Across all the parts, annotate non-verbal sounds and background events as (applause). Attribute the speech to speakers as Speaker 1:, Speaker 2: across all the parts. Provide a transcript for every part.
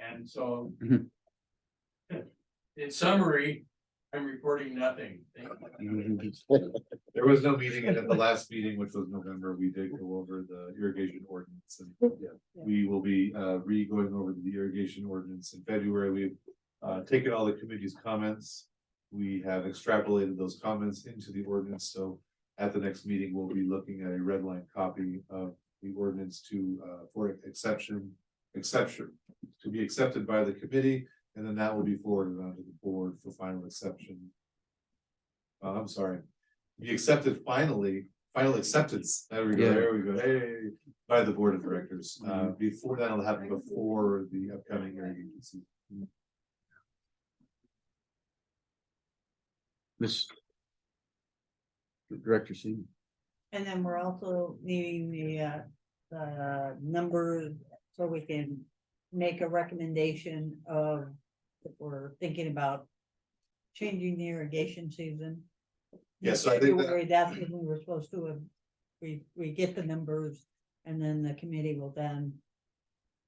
Speaker 1: and so.
Speaker 2: Mhm.
Speaker 1: In summary, I'm reporting nothing. Thank you.
Speaker 3: There was no meeting, and at the last meeting, which was November, we did go over the irrigation ordinance, and yeah, we will be uh re-going over the irrigation ordinance in February, we've uh taken all the committee's comments. We have extrapolated those comments into the ordinance, so at the next meeting, we'll be looking at a red line copy of the ordinance to uh for exception, exception to be accepted by the committee, and then that will be forwarded onto the board for final exception. Uh, I'm sorry, be accepted finally, final acceptance, there we go,
Speaker 2: Yeah.
Speaker 3: there we go, hey, by the board of directors, uh, before that'll happen before the upcoming hearing agency.
Speaker 2: Miss. Director Seaman.
Speaker 4: And then we're also needing the, uh, the number, so we can make a recommendation of, if we're thinking about changing the irrigation season.
Speaker 3: Yeah, so I think that-
Speaker 4: February, That's when we were supposed to, have- we, we get the numbers, and then the committee will then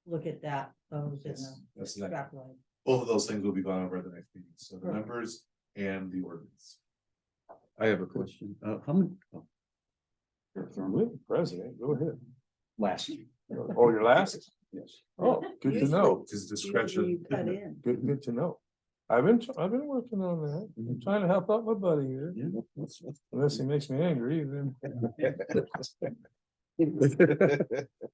Speaker 4: look at that, those in
Speaker 3: Yes,
Speaker 4: the
Speaker 3: That's the next,
Speaker 4: draft line.
Speaker 3: both of those things will be gone over at the next meeting, so the
Speaker 4: Perfect.
Speaker 3: numbers and the ordinance.
Speaker 2: I have a question. Uh, how many? oh,
Speaker 5: President, go ahead. Last. Oh,
Speaker 2: (laughs)
Speaker 5: your last?
Speaker 2: Yes.
Speaker 5: Oh, good to know.
Speaker 3: His
Speaker 4: Usually
Speaker 3: discretion.
Speaker 4: you Cut in.
Speaker 5: Good, good to know. I've been, tr- I've been working on that.
Speaker 3: Mhm.
Speaker 5: I'm trying to help out my buddy here.
Speaker 2: Yeah, that's- that's-
Speaker 5: Unless he makes me angry, then.
Speaker 2: (laughs)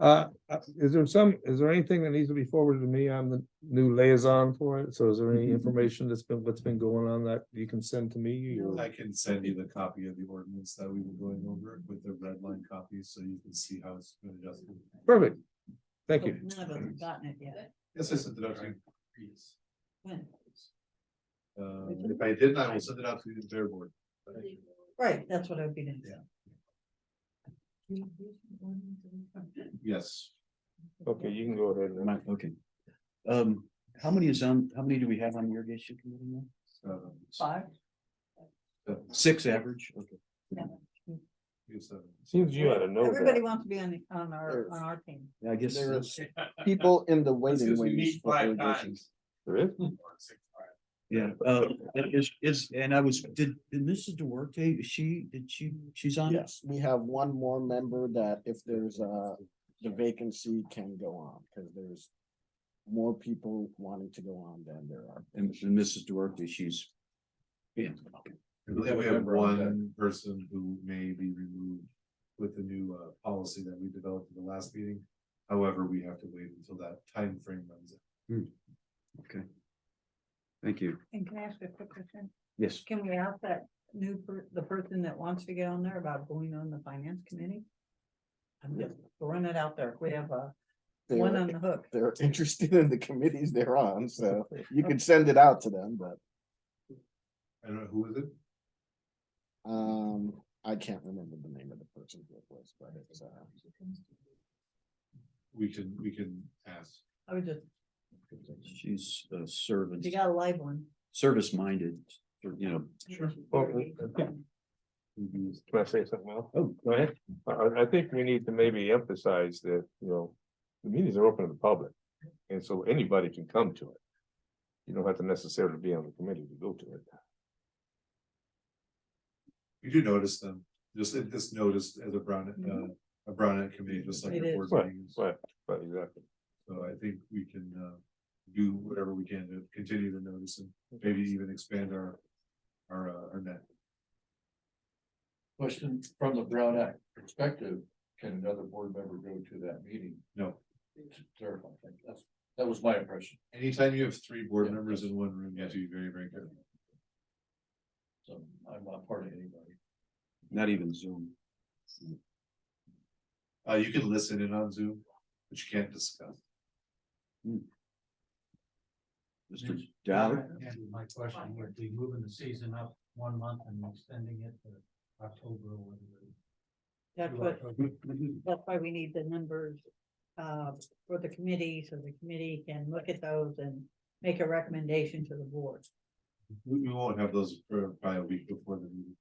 Speaker 5: Uh, uh, is there some, is there anything that needs to be forwarded to me? I'm the new liaison for it. So is there any information that's been, what's been going on that you can send to me? or-
Speaker 3: I can send you the copy of the ordinance that we were going over with the red line copy, so you can see how it's been adjusted.
Speaker 5: Perfect. Thank you.
Speaker 4: None of us have gotten it yet.
Speaker 3: Yes, I sent it out to you.
Speaker 4: When?
Speaker 3: Uh, if I didn't, I will send it out to the entire board.
Speaker 4: Right, that's what I've been into.
Speaker 3: Yeah. Yes.
Speaker 5: Okay, you can go ahead. and-
Speaker 2: My- Okay. Um, how many is on, how many do we have on the irrigation committee now?
Speaker 3: um,
Speaker 4: Five?
Speaker 3: so-
Speaker 2: Six average, okay.
Speaker 3: Yes, uh,
Speaker 5: Seems you ought to know
Speaker 4: Everybody
Speaker 5: that.
Speaker 4: wants to be on, the- on our, on our team.
Speaker 2: Yeah, I guess.
Speaker 6: There
Speaker 2: that's-
Speaker 6: people in the waiting
Speaker 1: Because we
Speaker 6: wings.
Speaker 1: meet
Speaker 6: for
Speaker 1: five
Speaker 6: irrigation.
Speaker 1: times.
Speaker 5: There is.
Speaker 2: Yeah, uh, that is, is, and I was, did, did Mrs. Duarte, is she, did she, she's on? it?
Speaker 6: Yes, we have one more member that if there's a, the vacancy can go on, because there's more people wanting to go on than there are.
Speaker 2: And and Mrs. Duarte, she's. Yeah, okay.
Speaker 3: I believe we have one person who may be removed with the new uh policy that we developed in the last meeting. However, we have to wait until that time frame runs out.
Speaker 2: okay. Thank you.
Speaker 4: And can I ask a quick question?
Speaker 2: Yes.
Speaker 4: Can we ask that new, per- the person that wants to get on there about going on the finance committee? I'm just throwing it out there. We have a one
Speaker 6: They're,
Speaker 4: on the hook.
Speaker 6: they're (laughs) interested in the committees they're on, so you could send it out to them, but,
Speaker 3: I don't know, who is it?
Speaker 6: um, I can't remember the name of the person who it was, but it's, uh,
Speaker 3: We can, we can ask.
Speaker 4: I was just,
Speaker 2: She's a servant,
Speaker 4: you got a live one.
Speaker 2: service minded, you know,
Speaker 4: Sure.
Speaker 5: Can I say something else?
Speaker 2: Oh,
Speaker 5: go ahead. I, I- I think we need to maybe emphasize that, you know, the meetings are open to the public, and so anybody can come to it. You don't have to necessarily be on the committee to go to it.
Speaker 3: You do notice them, just it just noticed as a brown,
Speaker 4: Mhm.
Speaker 3: uh, a brown act committee, just like.
Speaker 4: It
Speaker 3: your
Speaker 4: is.
Speaker 3: board
Speaker 5: Right,
Speaker 3: meetings.
Speaker 5: Right, right, exactly.
Speaker 3: So I think we can uh do whatever we can to continue to notice and maybe even expand our our uh, our net.
Speaker 7: Question from the Brown Act perspective, can another board member go to that meeting?
Speaker 3: No.
Speaker 7: To Clarify, thank you. that's, that was my impression,
Speaker 3: Anytime you have three board
Speaker 7: Yeah.
Speaker 3: members in one room, you have to be very, very careful.
Speaker 7: so I'm not part of anybody.
Speaker 2: not even Zoom.
Speaker 3: Uh, you can listen in on Zoom, but you can't discuss.
Speaker 2: Mr. Dowd,
Speaker 1: My question would be moving the season up one month and extending it to October or
Speaker 4: That's what, that's why we need the numbers uh, for the committee, so the committee can look at those and make a recommendation to the board.
Speaker 3: We, we won't have those for probably a week before the meeting.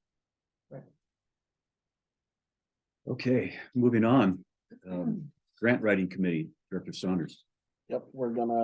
Speaker 2: okay,
Speaker 4: Hmm.
Speaker 2: moving on, um, grant writing committee, Director Saunders.
Speaker 6: yep, we're gonna